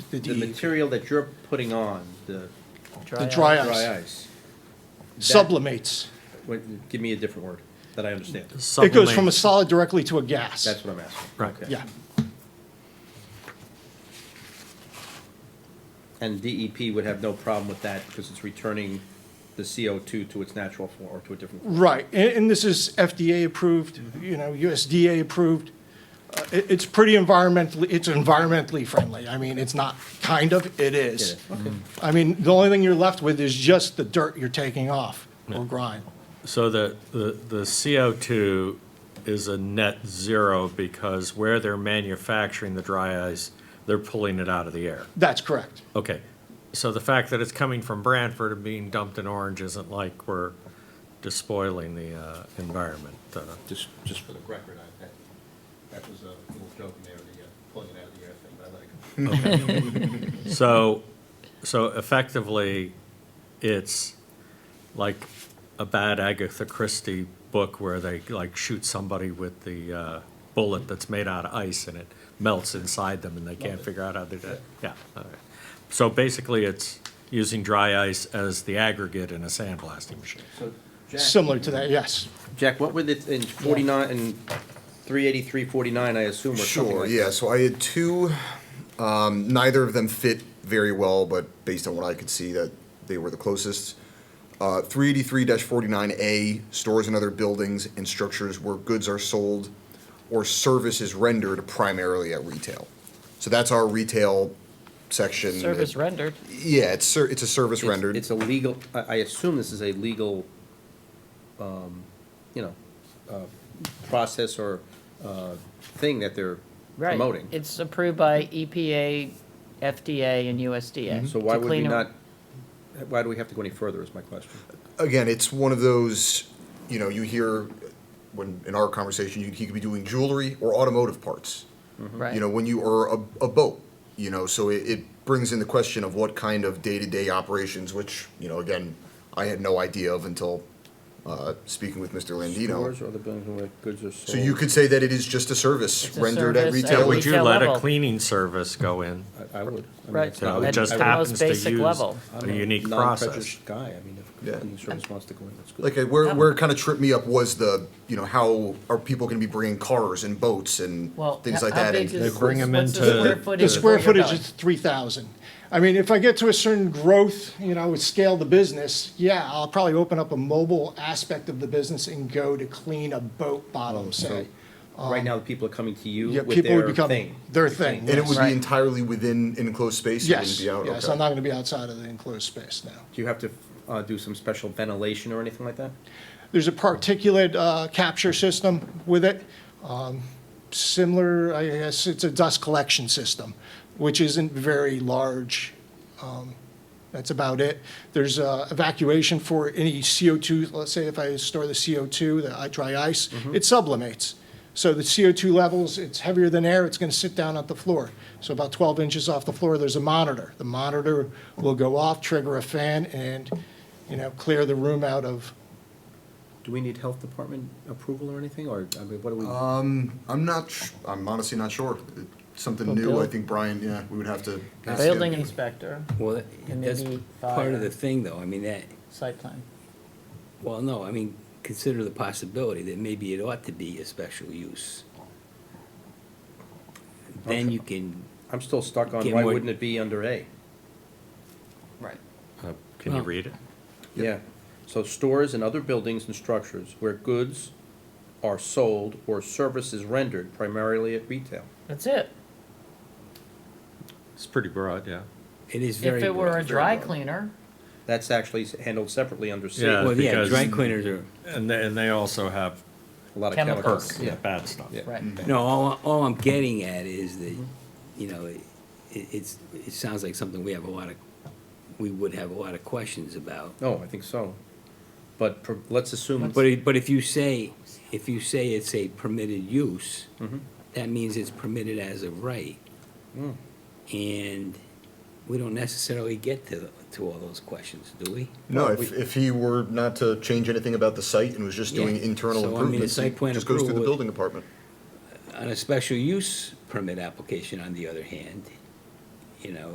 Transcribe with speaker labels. Speaker 1: The
Speaker 2: the
Speaker 1: DEP.
Speaker 2: material that you're putting on, the
Speaker 1: The dry
Speaker 2: dry
Speaker 1: ice
Speaker 2: ice,
Speaker 1: sublimates.
Speaker 2: what- give me a different word that I understand.
Speaker 1: It goes from a solid directly to a gas.
Speaker 2: That's what I'm asking.
Speaker 3: Right.
Speaker 2: Okay.
Speaker 1: Yeah,
Speaker 2: And DEP would have no problem with that because it's returning the CO2 to its natural form or to a different. form.
Speaker 1: right. And, and this is FDA approved, you know, USDA approved. Uh, it- it's pretty environmentally, it's environmentally friendly. I mean, it's not kind of, it is.
Speaker 2: Yeah, okay.
Speaker 1: I mean, the only thing you're left with is just the dirt you're taking off or grime.
Speaker 3: So the, the the CO2 is a net zero because where they're manufacturing the dry ice, they're pulling it out of the air.
Speaker 1: That's correct.
Speaker 3: Okay, so the fact that it's coming from Branford and being dumped in Orange isn't like we're despoiling the uh, environment. uh,
Speaker 4: Just, just for the record, I, that, that was a little joke in there, the uh, pulling it out of the air thing, but I let it go.
Speaker 3: So, so effectively, it's like a bad Agatha Christie book where they like shoot somebody with the uh, bullet that's made out of ice and it melts inside them and they can't figure out how they did it. Yeah. all right. So basically, it's using dry ice as the aggregate in a sandblasting machine.
Speaker 2: So, Jack,
Speaker 1: Similar to that, yes.
Speaker 2: Jack, what were the, in 49 and 383, 49, I assume, or something
Speaker 5: Sure,
Speaker 2: like
Speaker 5: yeah.
Speaker 2: that?
Speaker 5: So I had two. Um, neither of them fit very well, but based on what I could see, that they were the closest. Uh, 383-49A stores and other buildings and structures where goods are sold or services rendered primarily at retail. So that's our retail section.
Speaker 6: Service rendered.
Speaker 5: yeah, it's ser- it's a service
Speaker 2: It's-
Speaker 5: rendered.
Speaker 2: It's a legal, I, I assume this is a legal, um, you know, uh, process or, uh, thing that they're
Speaker 6: Right.
Speaker 2: promoting.
Speaker 6: It's approved by E EPA, FDA, and USDA.
Speaker 2: Mm-hmm. So why
Speaker 6: to
Speaker 2: would we
Speaker 6: clean
Speaker 2: not,
Speaker 6: up-
Speaker 2: why do we have to go any further is my question.
Speaker 5: again, it's one of those, you know, you hear when in our conversation, you, he could be doing jewelry or automotive parts.
Speaker 6: Right.
Speaker 5: You know, when you or a, a boat, you know, so it, it brings in the question of what kind of day to day operations, which you know, again, I had no idea of until uh, speaking with Mr. Landino.
Speaker 2: Stores or the buildings where goods are sold.
Speaker 5: So you could say that it is just a service
Speaker 6: It's a
Speaker 5: rendered at
Speaker 6: service at
Speaker 5: retail.
Speaker 3: Would
Speaker 5: which-
Speaker 3: you
Speaker 6: Retail
Speaker 3: let a
Speaker 6: level.
Speaker 3: cleaning service go in?
Speaker 2: I, I would. I mean,
Speaker 6: Right.
Speaker 2: it's
Speaker 3: You
Speaker 2: not-
Speaker 3: know,
Speaker 6: At
Speaker 3: it just
Speaker 6: the most
Speaker 3: happens to use
Speaker 6: basic level.
Speaker 2: I'm
Speaker 3: a unique process.
Speaker 2: non-prejudiced Guy, I mean, if
Speaker 5: Yeah.
Speaker 2: the service wants to go in, that's good.
Speaker 5: Like uh, where where it kind of tripped me up was the you know how are people going to be bringing cars and boats and
Speaker 6: Well,
Speaker 5: things
Speaker 6: how-
Speaker 5: like
Speaker 6: how
Speaker 5: that?
Speaker 6: big
Speaker 5: and-
Speaker 6: is-
Speaker 3: They bring 'em
Speaker 6: what's
Speaker 3: into-
Speaker 6: The square
Speaker 3: The
Speaker 6: footage.
Speaker 1: The square
Speaker 6: before you're
Speaker 1: footage
Speaker 6: done?
Speaker 1: is three thousand. I mean, if I get to a certain growth, you know, with scale the business, yeah, I'll probably open up a mobile aspect of the business and go to clean a boat bottom, say.
Speaker 2: Right now, the people are coming to you
Speaker 1: Yeah,
Speaker 2: with
Speaker 1: people would
Speaker 2: their
Speaker 1: become
Speaker 2: thing.
Speaker 1: their thing.
Speaker 5: And it would
Speaker 6: Right.
Speaker 5: be entirely within enclosed space? It
Speaker 1: Yes,
Speaker 5: wouldn't be out?
Speaker 1: yes,
Speaker 5: Okay.
Speaker 1: I'm not gonna be outside of the enclosed space now.
Speaker 2: Do you have to, uh, do some special ventilation or anything like that?
Speaker 1: There's a particulate uh, capture system with it, um, similar, I guess, it's a dust collection system, which isn't very large. Um, That's about it. There's uh, evacuation for any CO2, let's say if I store the CO2, the i- dry ice, it sublimates. So the CO2 levels, it's heavier than air, it's going to sit down at the floor. So about 12 inches off the floor, there's a monitor. The monitor will go off, trigger a fan, and, you know, clear the room out of
Speaker 2: Do we need health department approval or anything, or, I mean, what do we?
Speaker 5: Um, I'm not, sh- I'm honestly not sure. It's Something
Speaker 6: Well,
Speaker 5: new,
Speaker 6: Bill-
Speaker 5: I think, Brian, yeah, we would have to. ask him.
Speaker 6: Building inspector,
Speaker 7: Well,
Speaker 6: And
Speaker 7: that's
Speaker 6: maybe
Speaker 7: part
Speaker 6: fire.
Speaker 7: of the thing, though, I mean, that,
Speaker 6: site plan.
Speaker 7: well, no, I mean, consider the possibility that maybe it ought to be a special use. Then you can,
Speaker 2: I'm still stuck on,
Speaker 7: Get
Speaker 2: why
Speaker 7: more-
Speaker 2: wouldn't it be under A?
Speaker 6: Right.
Speaker 3: Uh, Can you
Speaker 7: Well-
Speaker 3: read it?
Speaker 2: Yeah, so stores and other buildings and structures where goods are sold or services rendered primarily at retail.
Speaker 6: That's it.
Speaker 3: It's pretty broad, yeah.
Speaker 7: it is very.
Speaker 6: If it were a
Speaker 7: broad.
Speaker 6: dry cleaner,
Speaker 2: That's actually handled separately under C.
Speaker 3: Yeah.
Speaker 2: A
Speaker 7: Well, yeah,
Speaker 3: because-
Speaker 7: dry cleaners are,
Speaker 3: And they, and they also have
Speaker 2: lot of
Speaker 6: Chemicals.
Speaker 2: chemicals,
Speaker 3: perks,
Speaker 2: yeah.
Speaker 3: bad stuff.
Speaker 2: Yeah. Mm-hmm.
Speaker 6: right.
Speaker 7: no, all, all I'm getting at is that,
Speaker 6: Mm-hmm.
Speaker 7: you know, it, it's, it sounds like something we have a lot of, we would have a lot of questions about.
Speaker 2: No, Oh, I think so. But per- let's assume,
Speaker 7: But, it- but if you say, if you say it's a permitted use, that means it's permitted as of right. And we don't necessarily get to, to all those questions, do we?
Speaker 5: No, if, if he were not to change anything about the site and was just doing
Speaker 7: Yeah.
Speaker 5: internal
Speaker 7: So, I mean, the
Speaker 5: improvements,
Speaker 7: site
Speaker 5: it
Speaker 7: plan
Speaker 5: just goes through the
Speaker 7: approval-
Speaker 5: building department.
Speaker 7: On a special use permit application, on the other hand, you know,